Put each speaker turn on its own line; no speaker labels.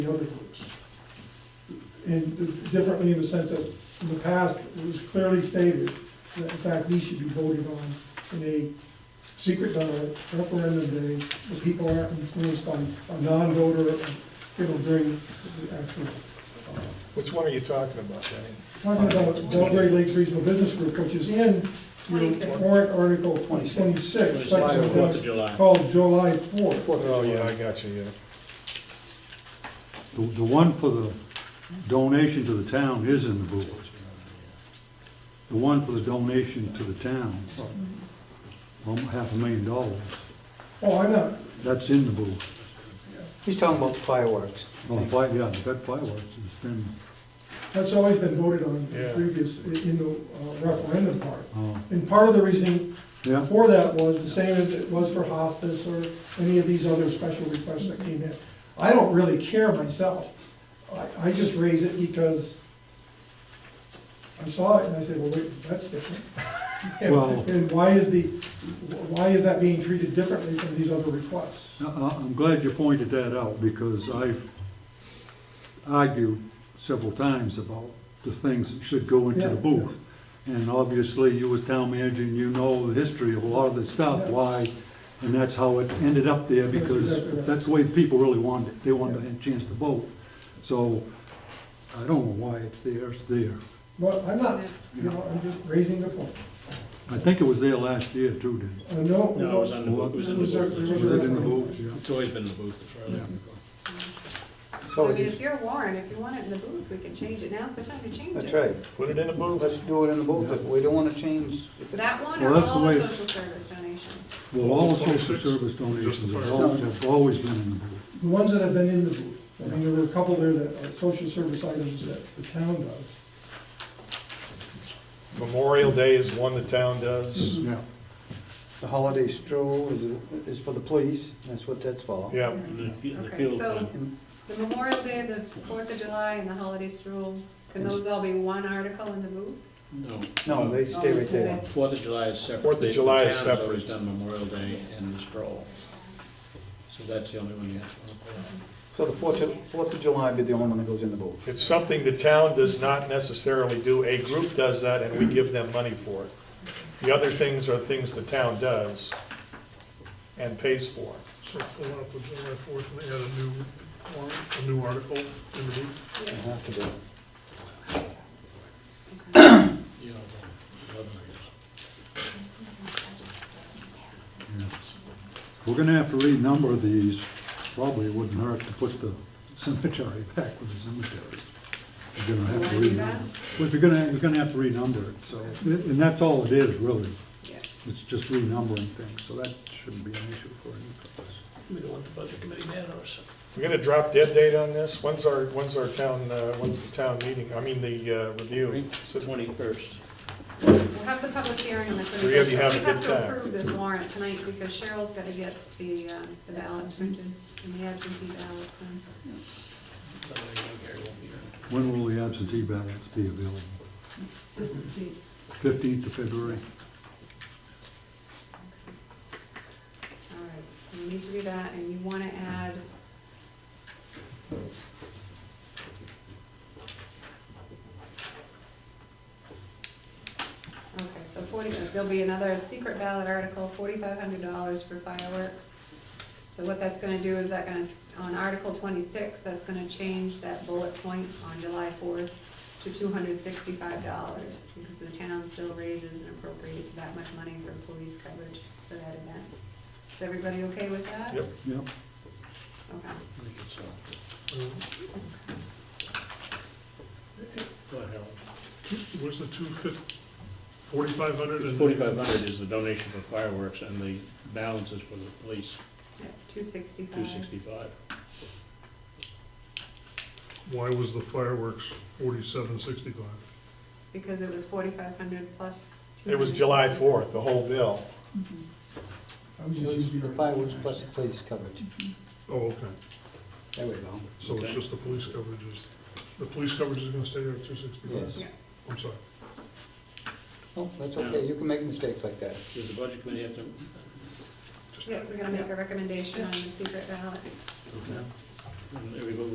the other groups. And differently in the sense that in the past, it was clearly stated that in fact these should be voted on in a secret ballot referendum day, the people aren't influenced by a non-voter, it'll bring the actual.
Which one are you talking about, Danny?
Talking about Belgrade Lakes Regional Business Group, which is in your
26.
warrant article twenty-six, section
Fourth of July.
called July fourth.
Oh, yeah, I got you, yeah.
The, the one for the donation to the town is in the board. The one for the donation to the town, um, half a million dollars,
Oh, I know,
that's in the board.
He's talking about the fireworks.
Oh, the fire, yeah, the pet fireworks, it's been,
That's always been voted on
Yeah.
in previous, in the uh, referendum part.
uh,
And part of the reason
yeah,
for that was the same as it was for hospice or any of these other special requests that came in. I don't really care myself. I, I just raise it because I saw it and I said, well, wait, that's different. And-
Well-
And why is the, why is that being treated differently from these other requests?
I, I- Uh, I'm glad you pointed that out, because I've argued several times about the things that should go into the
Yeah.
booth. And obviously, you as town manager, and you know the history of a lot of this stuff,
Yeah.
why, and that's how it ended up there,
That's exactly
because
right.
that's the way people really wanted it, they wanted
Yeah.
a chance to vote. So, I don't know why it's there, it's there.
Well, I'm not, you know, I'm just raising the point.
I think it was there last year too, Dave.
I know.
No, it was on the book, it was in the
It was- it
booth.
Was it in the booth? Yeah.
It's always been in the booth, as far as I can recall.
So
I mean, it's
it's-
your warrant, if you want it in the booth, we can change it, now's the time to change it.
That's right.
Put it in a
Let's
booth.
do it in the booth. If We don't want to change. if it's-
That one
Well,
or
that's the
all the
way-
social service donations?
Well, all the social service donations have al- have always been in the booth.
The ones that have been in the booth, I mean, there were a couple there that are social service items that the town does.
Memorial Day is one the town does.
Mm-hmm.
Yeah.
The holiday stroll is, is for the police. That's what that's for.
Yeah,
And the fe- and the
Okay,
field
so-
fund.
And
The Memorial Day, the Fourth of July, and the holiday stroll, can those all be one article in the booth?
No.
No, they stay right there.
Fourth of July is separate.
Fourth of
The
July is
town has always
separate.
done Memorial Day and the stroll. So that's the only one you have to look at.
So the Fourth of, Fourth of July would be the only one that goes in the booth.
it's something the town does not necessarily do. A group does that and we give them money for it. The other things are things the town does and pays for.
So the one up on July fourth, and they had a new warrant, a new article in the book.
It'll have to be.
You know, the eleven, I guess.
We're gonna have to renumber these, probably it wouldn't hurt to put the cemetery back with the cemetery. We're gonna have to
Wanna do that?
renumber. Well, if you're gonna, you're gonna have to renumber it, so, and that's all it is, really,
Yeah.
it's just renumbering things, so that shouldn't be an issue for any of us.
We don't want the budget committee mad on us.
We're gonna drop dead date on this? When's our, when's our town, uh, when's the town meeting? I mean, the uh, review.
It's the twenty-first.
We'll have the public hearing on the
Three
thirty-first.
of you have a good
We have
time.
to approve this warrant tonight, because Cheryl's gotta get the, um, the ballots printed, and the absentee ballots, and
Gary won't be here.
When will the absentee ballots be available? Fifteenth of February?
All right, so you need to do that, and you wanna add. Okay, so forty, there'll be another secret ballot article, forty-five hundred dollars for fireworks. So what that's gonna do is that gonna, s- on Article twenty-six, that's gonna change that bullet point on July fourth to two hundred sixty-five dollars, because the town still raises and appropriates that much money for police coverage for that event. Is everybody okay with that?
Yep.
Yep.
Okay.
I think it's, uh, go ahead, Harold.
Where's the two fifty, forty-five hundred and?
Forty-five hundred is the donation for fireworks and the balance is for the police,
Two sixty-five.
two sixty-five.
Why was the fireworks forty-seven sixty-five?
Because it was forty-five hundred plus.
It was July fourth, the whole bill.
I would
It
just use
was
your-
The fireworks plus the police coverage.
Oh, okay,
There we go.
so it's
Okay.
just the police coverage is, the police coverage is gonna stay there at two sixty-five?
Yes.
Yeah.
I'm sorry.
Oh, that's okay. You can make mistakes like that.
Does the budget committee have to?
Yeah, we're gonna make a recommendation on the secret ballot.
Okay. And everybody